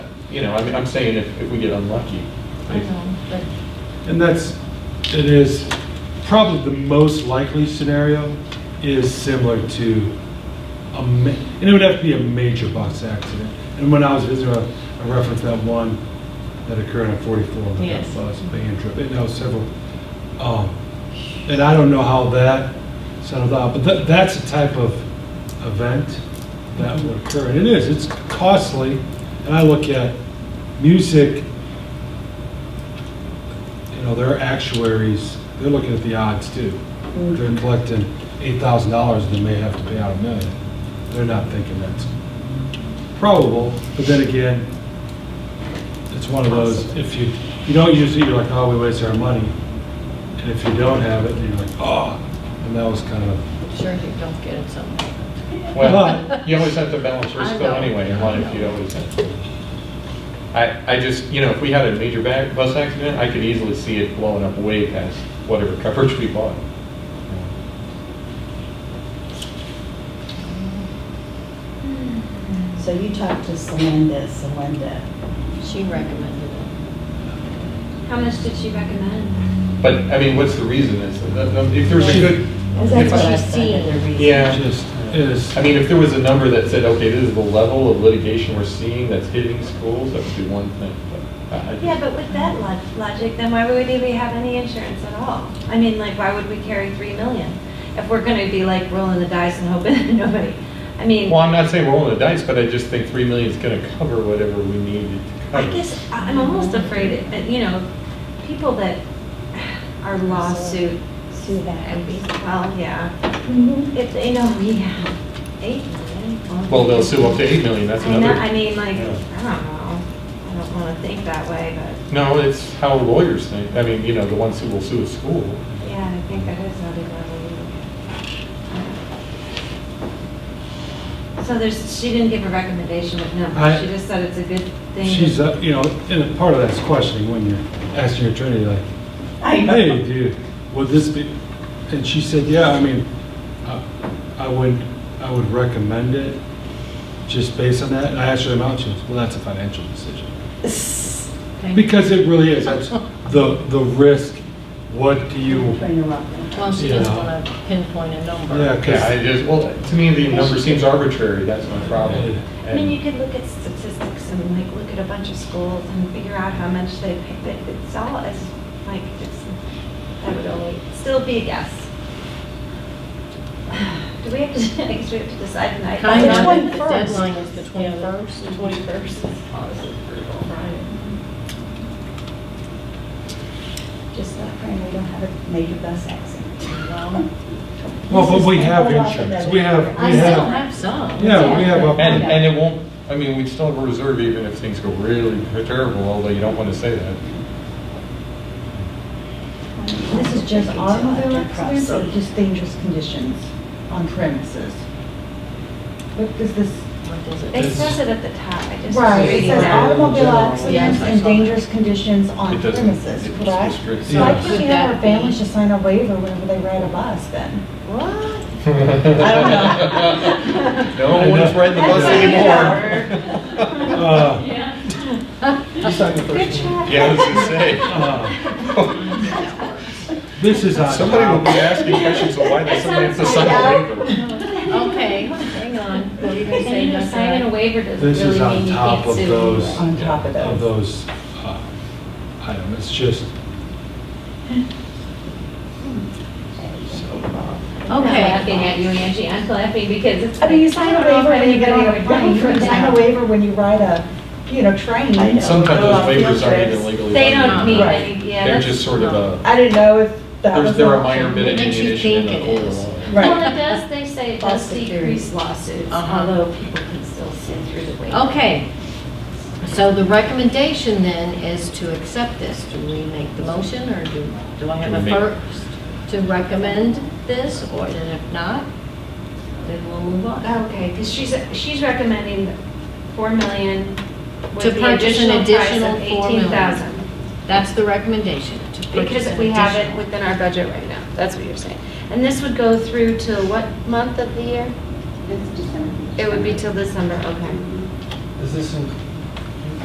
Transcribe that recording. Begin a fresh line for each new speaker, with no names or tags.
you know, I mean, I'm saying if, if we get unlucky.
I know, but
And that's, it is, probably the most likely scenario is similar to, a ma- and it would have to be a major bus accident. And when I was visiting, I I referenced that one that occurred on 44 on that
Yes.
bus, van trip, and that was several. um, And I don't know how that settled out, but that, that's the type of event that would occur. And it is, it's costly, and I look at music, you know, their actuaries, they're looking at the odds too. They're collecting eight thousand dollars, and they may have to pay out a million. They're not thinking that's probable, but then again, it's one of those, if you, you don't use it, you're like, oh, we wasted our money. And if you don't have it, you're like, oh, and that was kind of,
I'm sure if you don't get it somewhere.
Well, you always have to balance risk
I
though
know.
anyway, in life, you always have to. I, I just, you know, if we had a major ba- bus accident, I could easily see it blowing up way past whatever coverage we bought.
So you talked to Celinda, Celinda.
She recommended it.
How much did she recommend?
But, I mean, what's the reason? Is- uh, If there's a good,
Is that
If
what
I-
I said, the reason?
Yeah.
just is,
I mean, if there was a number that said, okay, this is the level of litigation we're seeing that's hitting schools, that would be one thing, but I- I
Yeah,
just,
but with that log- logic, then why would we have any insurance at all? I mean, like, why would we carry three million? If we're gonna be like rolling the dice and hoping nobody, I mean,
well, I'm not saying rolling the dice, but I just think three million is gonna cover whatever we needed to
I
cover.
guess I- I'm almost afraid that, you know, people that are lawsuit,
Sue
and
that.
be- well, yeah,
Mhm.
if they know we have eight million.
Well, they'll sue up to eight million, that's
I know,
another.
I mean, like,
Yeah.
I don't know, I don't wanna think that way, but,
No, it's how lawyers think. I mean, you know, the ones who will sue a school.
yeah, I think that is not a good idea. So there's, she didn't give a recommendation of
I-
numbers, she just said it's a good thing.
she's, uh, you know, and part of that's questioning when you're asking your attorney, like,
I
hey,
know.
dude, would this be, and she said, yeah, I mean, I- I would, I would recommend it, just based on that, and I asked her the amount, she goes, well, that's a financial decision. Because it really is, it's the, the risk, what do you,
Train her up now.
Well, she doesn't
Yeah.
want to pinpoint a number.
yeah,
Yeah, I
because,
just, well, to me, the number seems arbitrary. That's my problem.
I mean, you
And
could look at statistics and like look at a bunch of schools and figure out how much they pay, but it's all, it's like, it's, that would only, still be a guess. Do we have to, I guess we have to decide tonight.
Kind
The
of, the
21st.
deadline is the 21st.
Twenty-first.
Just not praying we don't have a major bus accident.
well, but we have insurance, we have,
I
we
still
have,
have some.
yeah, we have,
and,
a-
and it won't, I mean, we'd still have a reserve even if things go really terrible, although you don't want to say that.
This is just automobile accidents or just dangerous conditions on premises? What does this?
What does it-
It says it at the top, I just.
Right, it
reading
says
that.
automobile
Yes, I
accidents and
saw that.
dangerous conditions on
It doesn't-
premises,
it's
correct?
restricted.
So I
Yeah.
think we
Would
have
that
our families
be-
just sign a waiver whenever they ride a bus then.
What?
No one's riding the bus anymore.
uh,
Good try.
Yeah, I was gonna
uh,
say.
this is on.
Somebody will be asking questions, so why does somebody have to sign a waiver?
Okay, hang on. What are you going to say,
Signing a- signing a
Jessica?
waiver doesn't
This is
really
on
mean you
top
can't
of
sue.
those-
anyway.
On top of
of
those.
those uh, items. It's just,
I'm
Okay.
laughing at you, Angie, I'm laughing because it's.
I mean, you sign a
I don't know
waiver
if
when you get on a
anybody would buy
plane, you
from
sign a
that.
waiver when you ride a, you know, train.
Sometimes
Go
those
on field
waivers aren't
trips.
even legally.
They
binding.
don't mean
Right.
any, yeah.
They're
that's-
just sort of a,
I didn't know if that was.
there's,
an
they're a
option.
minor bit of
Makes you
ammunition in
think
the
it
oil.
is.
Well,
Right.
it does, they say it
Plus
does
the
decrease lawsuits,
Uh-huh.
although people can still sit through the waiver.
Okay. So the recommendation then is to accept this. Do we make the motion or do, do I have
Do
a
we make-
first to recommend this? Or then if not, then we'll move on.
Okay, because she's, she's recommending four million
To
with the
purchase an
additional price
additional
of
4 million.
eighteen thousand.
That's the recommendation. to purchase
Because
an
we have it
additional.
within our budget right now, that's what you're saying. And this would go through till what month of the year? It would be till December, okay.
Does this, in-